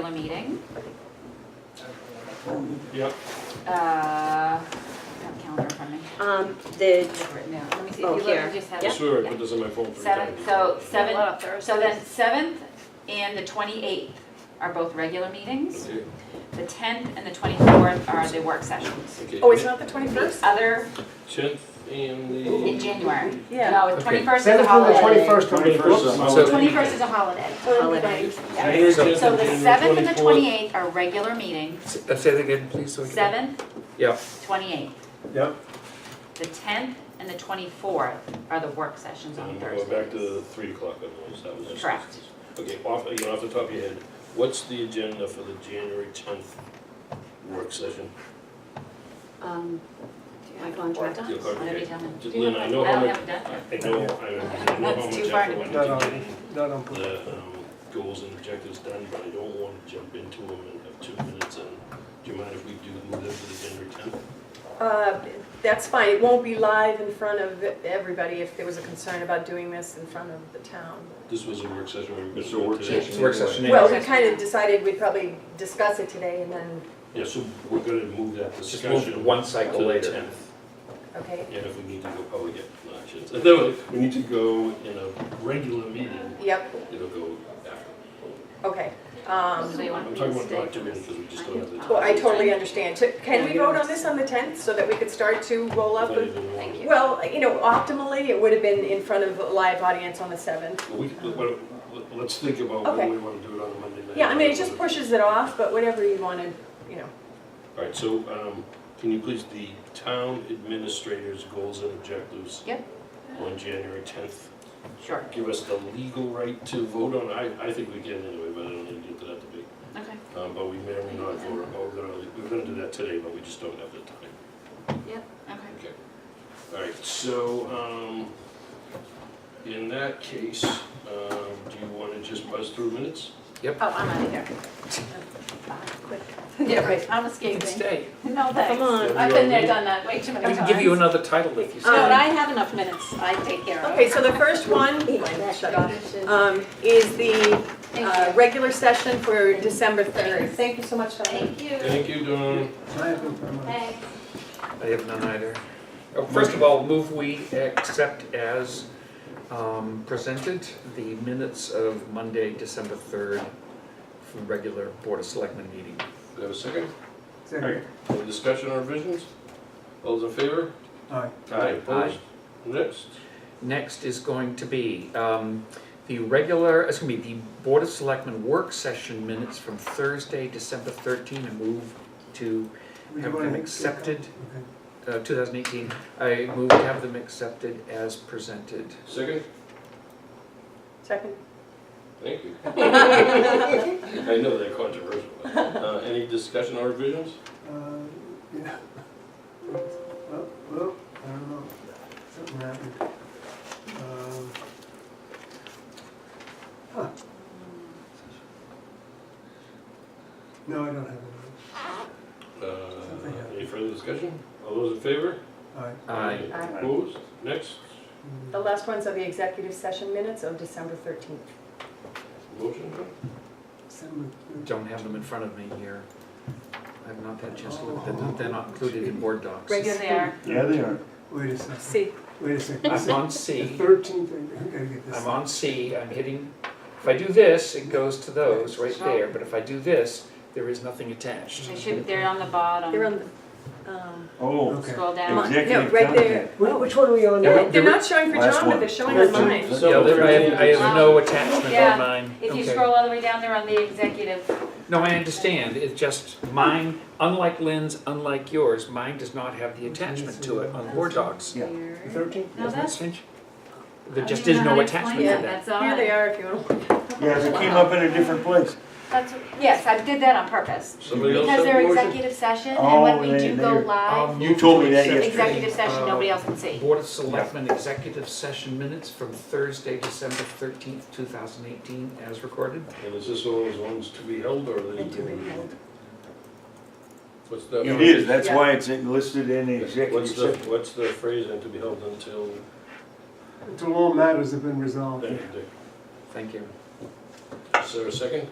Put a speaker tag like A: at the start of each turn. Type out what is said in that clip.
A: regular meeting.
B: Yep.
A: Uh, I don't have a calendar in front of me.
C: Um, the,
A: Right now. Let me see. You
C: Oh,
A: look-
C: here.
A: you just had
C: Yeah.
A: it.
B: I swear I put this on my phone three times.
A: Seven, so
D: A lot
A: seven,
D: of
A: so
D: Thursdays.
A: then seventh and the twenty-eighth are both regular meetings.
B: Okay,
A: The tenth and the twenty-fourth are the work sessions.
B: okay.
D: Oh, it's not the
A: The
D: 21st?
A: other,
B: Tenth and the.
A: in January.
C: Yeah.
A: No, the
E: Okay.
A: twenty-first is a
E: Seventh through the
A: holiday.
E: twenty-first,
B: Twenty-first is a holiday.
A: Twenty-first is a holiday.
C: Holiday.
A: Yeah.
B: Here's
E: So
A: So the
B: January
A: seventh and the
B: 24th.
A: twenty-eighth are regular meetings,
E: uh, Say that again, please, so we can.
A: seventh,
E: Yeah,
A: twenty-eighth.
E: Yep.
A: The tenth and the twenty-fourth are the work sessions on
B: And
A: Thursdays.
B: we're back to the three o'clock on those, that was just.
A: Correct.
B: Okay, off, you know, off the top of your head, what's the agenda for the January tenth work session?
C: um, my contract.
B: Your
A: What did we
B: congregation?
A: tell them?
B: Just, Lynn, I know how
A: don't
B: much,
A: have it done.
B: I know, I know how
A: That's
B: much
A: too far to
B: effort went
E: go.
B: into getting
E: no, no,
B: the um, goals and objectives done, but I don't want to jump into them and have two minutes and do you mind if we do move them to the January tenth?
D: Uh, That's fine, it won't be live in front of everybody if there was a concern about doing this in front of the town.
B: This was a work session. we were gonna
F: It's a
B: do it
F: work
B: today.
E: it's
F: session.
E: work session.
D: Well, we
A: Yes.
D: kind of decided we'd probably discuss it today and then,
B: Yeah, so we're gonna move that
F: Just
B: discussion.
F: move one
B: to
F: cycle
B: the
F: later.
B: 10th.
D: okay,
B: And if we need to go, oh, yeah, no, I shouldn't say. No, we need to go in a regular meeting,
D: yep,
B: it'll go after.
D: okay. Um,
A: So you want
B: I'm
A: me
B: talking
A: to
B: about
A: stay
B: document
A: on this?
B: because we just don't have the
A: Oh,
B: time.
D: Well, I totally understand. So Can we vote on this on the 10th so that we could start to roll
B: If
D: up?
B: I
D: with-
B: even want-
A: Thank you.
D: Well, you know, optimally, it would have been in front of a live audience on the 7th.
B: Well, we- but- but Let's think about whether
D: Okay.
B: we want to do it on a Monday night.
D: Yeah, I mean, it just pushes it off, but whatever you want to, you know.
B: All right, so um, can you please, the town administrator's goals and objectives?
A: Yep.
B: On January 10th,
A: Sure,
B: give us the legal right to vote on, I, I think we can anyway, but I don't need to get to that debate.
A: okay.
B: Um, But we may or may not vote, on- but we're gonna, we're gonna do that today, but we just don't have the time.
A: Okay.
B: Okay. All right, so, um, in that case, um, do you want to just buzz through minutes?
A: Oh, I'm out of here.
D: Quick.
A: Yeah, right, I'm escaping.
E: Stay.
A: No,
C: Come
A: thanks.
C: on.
A: Uh, I've been there, done that way too many
E: We
A: times.
E: can give you another title if you
A: Oh,
C: No, but
E: stay.
C: I have enough minutes, I take care of it.
D: Okay, so the first one, shut off, um, is the uh, regular session for December 3rd. Thank you so much, Donna.
A: Thank you.
B: Thank you, Dawn.
A: Thanks.
E: I have none either. Oh, First of all, move we accept as um, presented the minutes of Monday, December 3rd, from regular Board of Selectmen meeting.
B: Do you have a second? Second. Any discussion or revisions? All those in favor?
G: Aye.
B: Aye, opposed? Next.
E: Next is going to be um, the regular, it's going to be the Board of Selectmen work session minutes from Thursday, December 13, and move to have them accepted,
G: Okay.
E: uh, 2018. I move to have them accepted as presented.
B: Second?
D: Second.
B: Thank you. I know they're controversial. Uh, any discussion or revisions?
G: Uh, yeah. Well, well, I don't know, something happened. Um, huh. No, I don't have any.
B: Uh, any further discussion? All those in favor?
G: Aye.
E: Aye.
D: Aye.
B: Opposed? Next.
D: The
G: Mm.
D: last ones are the executive session minutes of December 13th.
B: Motion? Dawn?
G: December third.
E: Don't have them in front of me here. I've not had a chance to look at them. They're not included in board docs.
A: Regular there.
F: Yeah, they are.
G: Wait a second,
D: See,
G: wait a second.
E: I'm on
G: The
E: C.
G: thirteenth, I gotta get this.
E: I'm on C. I'm hitting, if I do this, it goes to those right there. But if I do this, there is nothing attached.
A: They should, they're on the bottom.
D: they're on the, um,
F: Oh,
G: Okay.
A: Scroll
D: come
A: down.
D: on, no,
F: Executive
D: right there.
F: content.
G: Wh- Which one are we on
E: Yeah,
G: now?
E: but-
D: They're not showing for
F: Last
D: John, but
F: one.
D: they're showing on mine.
F: Thirteenth.
E: Yeah, there- I have, I have no attachment
A: Yeah.
E: on mine.
A: If you
E: Okay.
A: scroll all the way down, they're on the executive.
E: No, I understand, it's just mine, unlike Lynn's, unlike yours, mine does not have the attachment to it on board docs.
F: Yeah.
A: Weird.
G: Thirteenth?
A: No,
E: Doesn't that
A: that's.
E: change? There
A: I
E: just
A: don't
E: is
A: even know
E: no
A: how to
E: attachment
A: explain
E: to
A: that.
E: that.
A: That's odd.
D: Here they are if you want. to
F: Yeah, they came up in a different place.
A: That's, yes, I did that on purpose.
B: Somebody else
A: Because
B: have
A: they're
B: a motion?
A: executive session, and
F: Oh,
A: when we
F: they-
A: do go
F: they're-
A: live,
F: You told me that yesterday. Uh,
A: executive session, nobody else can see.
E: Um, Board of Selectmen Executive Session Minutes from Thursday, December thirteenth, two thousand eighteen, as recorded.
B: And is this one of those ones to be held or are they?
D: do it now.
B: What's the?
F: It is, that's
D: Yeah.
F: why it's listed in the executive
B: What's the,
F: session.
B: what's the phrase and to be held until?
G: Until all matters have been resolved.
B: Thank you, Dick.
E: Thank you.
B: Is there a second?